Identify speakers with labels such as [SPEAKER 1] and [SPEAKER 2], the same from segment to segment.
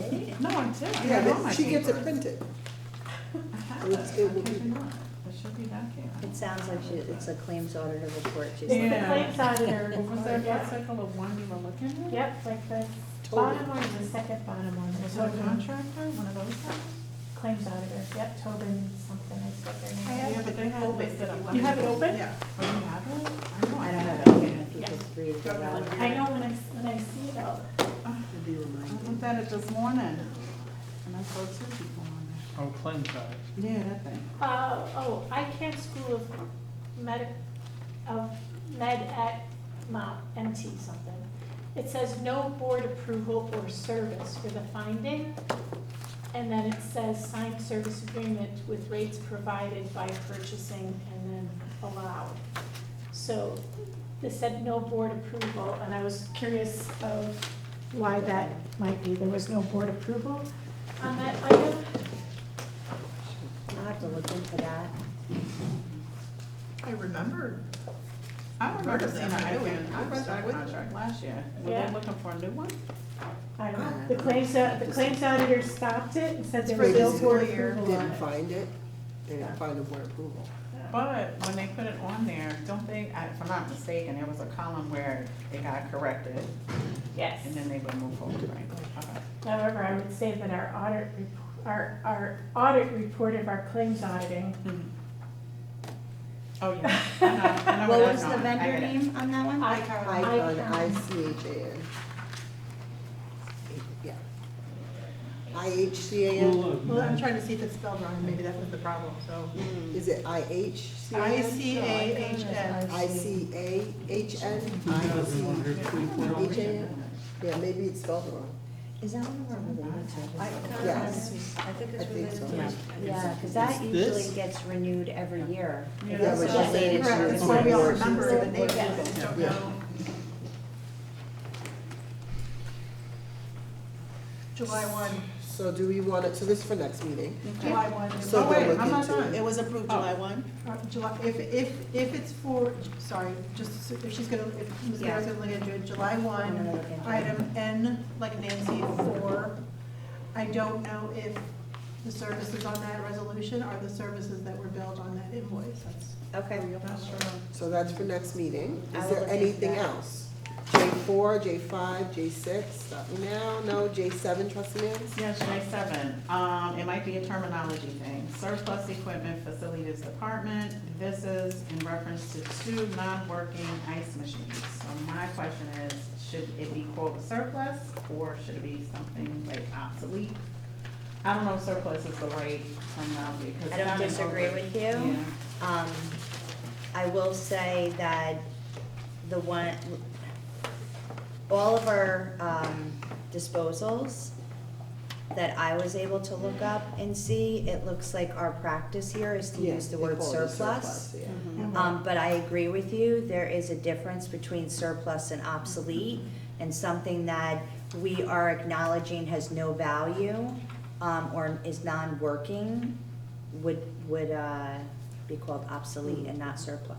[SPEAKER 1] one too. I
[SPEAKER 2] Yeah,
[SPEAKER 1] got all my
[SPEAKER 2] but she gets it
[SPEAKER 1] papers.
[SPEAKER 2] printed.
[SPEAKER 1] I have
[SPEAKER 2] It's-
[SPEAKER 1] it.
[SPEAKER 2] it will
[SPEAKER 1] How could
[SPEAKER 2] be-
[SPEAKER 1] you not? It should be back here.
[SPEAKER 3] It sounds like she, it's a claims auditor report, she's
[SPEAKER 1] Yeah.
[SPEAKER 3] looking
[SPEAKER 4] The
[SPEAKER 3] at.
[SPEAKER 4] claims auditor
[SPEAKER 1] Was there a
[SPEAKER 4] report, yeah.
[SPEAKER 1] bicycle of one you were looking at?
[SPEAKER 4] Yep, like the bottom one is the second bottom one, the
[SPEAKER 1] Was it a
[SPEAKER 4] Tobin
[SPEAKER 1] contractor, one of those guys?
[SPEAKER 4] claims auditor, yep, Tobin something, I forget their name.
[SPEAKER 1] Yeah, but they had
[SPEAKER 5] open
[SPEAKER 1] listed
[SPEAKER 5] if you
[SPEAKER 1] a
[SPEAKER 5] want.
[SPEAKER 1] lot.
[SPEAKER 4] You have it open?
[SPEAKER 2] Yeah.
[SPEAKER 1] Oh, you have it? I know
[SPEAKER 3] I
[SPEAKER 1] I
[SPEAKER 3] don't
[SPEAKER 1] had
[SPEAKER 3] have
[SPEAKER 1] it.
[SPEAKER 3] it open, I
[SPEAKER 4] Yeah.
[SPEAKER 3] can just read it
[SPEAKER 5] Go
[SPEAKER 3] out.
[SPEAKER 5] to the-
[SPEAKER 4] I know when I, when I see it, I'll,
[SPEAKER 2] You'll be
[SPEAKER 1] I
[SPEAKER 2] reminded.
[SPEAKER 1] looked at it this morning and I saw two people on
[SPEAKER 6] Oh, claim size.
[SPEAKER 1] there. Yeah, that thing.
[SPEAKER 4] uh, oh, I can School of Med, of Med at Mount MT something. It says no board approval or service for the finding. And then it says signed service agreement with rates provided by purchasing and then allowed. So this said no board approval, and I was curious of why that might be. There was no board approval on that item.
[SPEAKER 3] I'll have to look into that.
[SPEAKER 5] I remember,
[SPEAKER 1] I remember
[SPEAKER 5] Remember
[SPEAKER 1] seeing a
[SPEAKER 5] them, I do.
[SPEAKER 1] highway
[SPEAKER 5] I was there with
[SPEAKER 1] contract
[SPEAKER 5] you.
[SPEAKER 1] last year. Were
[SPEAKER 4] Yeah.
[SPEAKER 1] they looking for a new one?
[SPEAKER 4] I don't know. Uh, The claims, au- the claims auditor stopped it and said there
[SPEAKER 2] For
[SPEAKER 4] was no
[SPEAKER 2] this
[SPEAKER 4] board
[SPEAKER 5] year.
[SPEAKER 4] approval on
[SPEAKER 2] Didn't
[SPEAKER 4] it.
[SPEAKER 2] find it, they didn't find a board approval.
[SPEAKER 1] But when they put it on there, don't they, I- if I'm not mistaken, there was a column where it got corrected
[SPEAKER 4] Yes.
[SPEAKER 1] and then they would move forward, right? Okay.
[SPEAKER 4] However, I would say that our audit, rep- our, our audit report of our claims auditing,
[SPEAKER 1] Mm-hmm. Oh, yeah. I know- I know
[SPEAKER 7] What
[SPEAKER 1] where that's
[SPEAKER 7] was the
[SPEAKER 1] going. I
[SPEAKER 7] vendor
[SPEAKER 1] get it.
[SPEAKER 7] name on that one?
[SPEAKER 4] I-
[SPEAKER 2] Icon,
[SPEAKER 4] Icon.
[SPEAKER 2] I C H A N. Yeah. I H C A N,
[SPEAKER 5] well, I'm trying to see if it's spelled wrong, maybe that was the problem, so.
[SPEAKER 1] Mm.
[SPEAKER 2] is it I H C A N?
[SPEAKER 5] I C A H N.
[SPEAKER 2] I C A H N, I C H A N? Yeah, maybe it's spelled wrong.
[SPEAKER 3] Is that one of our related
[SPEAKER 7] I
[SPEAKER 3] services?
[SPEAKER 7] kinda
[SPEAKER 2] Yes.
[SPEAKER 7] was- I think
[SPEAKER 2] I
[SPEAKER 7] it's
[SPEAKER 2] think
[SPEAKER 7] related
[SPEAKER 2] so.
[SPEAKER 7] to.
[SPEAKER 2] Yeah.
[SPEAKER 3] Yeah, because that
[SPEAKER 6] Is this-
[SPEAKER 3] usually gets renewed every year.
[SPEAKER 1] Yeah,
[SPEAKER 3] It
[SPEAKER 2] Yeah,
[SPEAKER 3] gets
[SPEAKER 2] but that's-
[SPEAKER 3] related to
[SPEAKER 5] Correct,
[SPEAKER 3] the
[SPEAKER 5] it's why we all
[SPEAKER 2] Okay.
[SPEAKER 5] remember the name, of
[SPEAKER 3] Yeah.
[SPEAKER 5] it, just don't
[SPEAKER 2] Yeah.
[SPEAKER 5] know. July one,
[SPEAKER 2] So do we want it, so this is for next meeting?
[SPEAKER 5] July one.
[SPEAKER 2] So
[SPEAKER 5] Oh,
[SPEAKER 2] we'll
[SPEAKER 5] wait,
[SPEAKER 2] look
[SPEAKER 5] I'm not
[SPEAKER 2] into
[SPEAKER 5] done.
[SPEAKER 2] it.
[SPEAKER 5] It was approved
[SPEAKER 1] Oh.
[SPEAKER 5] July one? Uh, July, if, if, if it's for, sorry, just, so- if she's gonna, if Ms. Guerra's gonna look into it, July
[SPEAKER 3] I'm gonna
[SPEAKER 5] one,
[SPEAKER 3] look into it.
[SPEAKER 5] item N, like Nancy, four. I don't know if the services on that resolution are the services that were billed on that invoice, that's.
[SPEAKER 7] Okay.
[SPEAKER 5] Not sure.
[SPEAKER 2] So that's for next meeting.
[SPEAKER 3] I
[SPEAKER 2] Is
[SPEAKER 3] will
[SPEAKER 2] there
[SPEAKER 3] look into
[SPEAKER 2] anything
[SPEAKER 3] that.
[SPEAKER 2] else? J four, J five, J six, stop me now, no, J seven, trustee Nance?
[SPEAKER 1] Yes, J seven, um, it might be a terminology thing, surplus equipment facilities department, this is in reference to two non-working ice machines. So my question is, should it be quote surplus, or should it be something like obsolete? I don't know if surplus is the right terminology, because.
[SPEAKER 7] I don't disagree with you. Um, I will say that the one, all of our, um, disposals that I was able to look up and see, it looks like our practice here is to
[SPEAKER 2] Yeah,
[SPEAKER 7] use the
[SPEAKER 2] they
[SPEAKER 7] word
[SPEAKER 2] call it a
[SPEAKER 7] surplus.
[SPEAKER 2] yeah.
[SPEAKER 1] Hmm.
[SPEAKER 4] Mm-hmm.
[SPEAKER 7] Um, but I agree with you, there is a difference between surplus and obsolete, and something that we are acknowledging has no value, um, or is non-working, would, would, uh, be called obsolete and not surplus.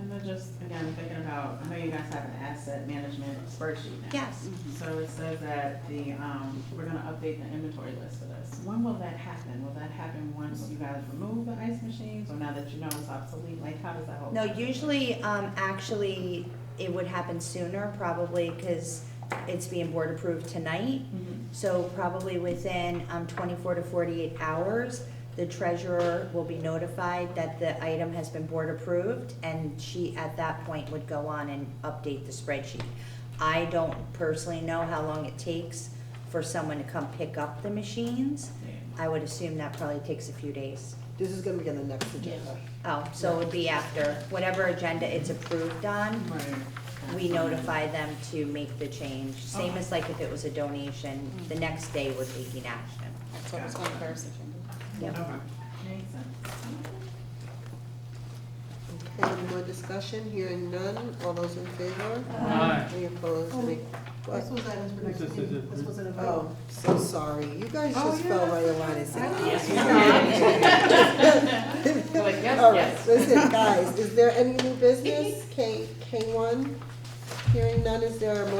[SPEAKER 1] And then just, again, thinking about, I know you guys have an asset management spreadsheet now.
[SPEAKER 7] Yes,
[SPEAKER 1] So it says that the, um, we're gonna update the inventory list for this. When will that happen? Will that happen once you guys remove the ice machines or now that you know it's obsolete? Like, how does that whole?
[SPEAKER 7] no, usually, um, actually, it would happen sooner, probably, cause it's being board approved tonight,
[SPEAKER 1] Mhm.
[SPEAKER 7] So probably within um, 24 to 48 hours, the treasurer will be notified that the item has been board approved, and she, at that point, would go on and update the spreadsheet. I don't personally know how long it takes for someone to come pick up the machines. I would assume that probably takes a few days.
[SPEAKER 2] This is gonna be on the next agenda.
[SPEAKER 7] Oh, so it would be after, whatever agenda it's approved on,
[SPEAKER 1] Right.
[SPEAKER 7] we notify them to make the change. Same as like if it was a donation, the next day we're taking action.
[SPEAKER 1] That's what was on the first
[SPEAKER 7] Yep.
[SPEAKER 1] Okay, makes sense.
[SPEAKER 2] Okay, any more discussion? Hearing none, all those in favor?
[SPEAKER 6] Aye.
[SPEAKER 2] Any opposed, any,
[SPEAKER 5] This
[SPEAKER 2] what?
[SPEAKER 5] was items for next
[SPEAKER 6] This is
[SPEAKER 5] meeting,
[SPEAKER 6] it.
[SPEAKER 5] this was an approval.
[SPEAKER 2] Oh, so sorry, you guys
[SPEAKER 1] Oh,
[SPEAKER 2] just
[SPEAKER 1] yeah,
[SPEAKER 2] fell
[SPEAKER 1] that's
[SPEAKER 2] right in line and said.
[SPEAKER 1] You're like, yes,
[SPEAKER 2] All right,
[SPEAKER 1] yes.
[SPEAKER 2] listen, guys, is there any new business? K, K one? Hearing none, is there a motion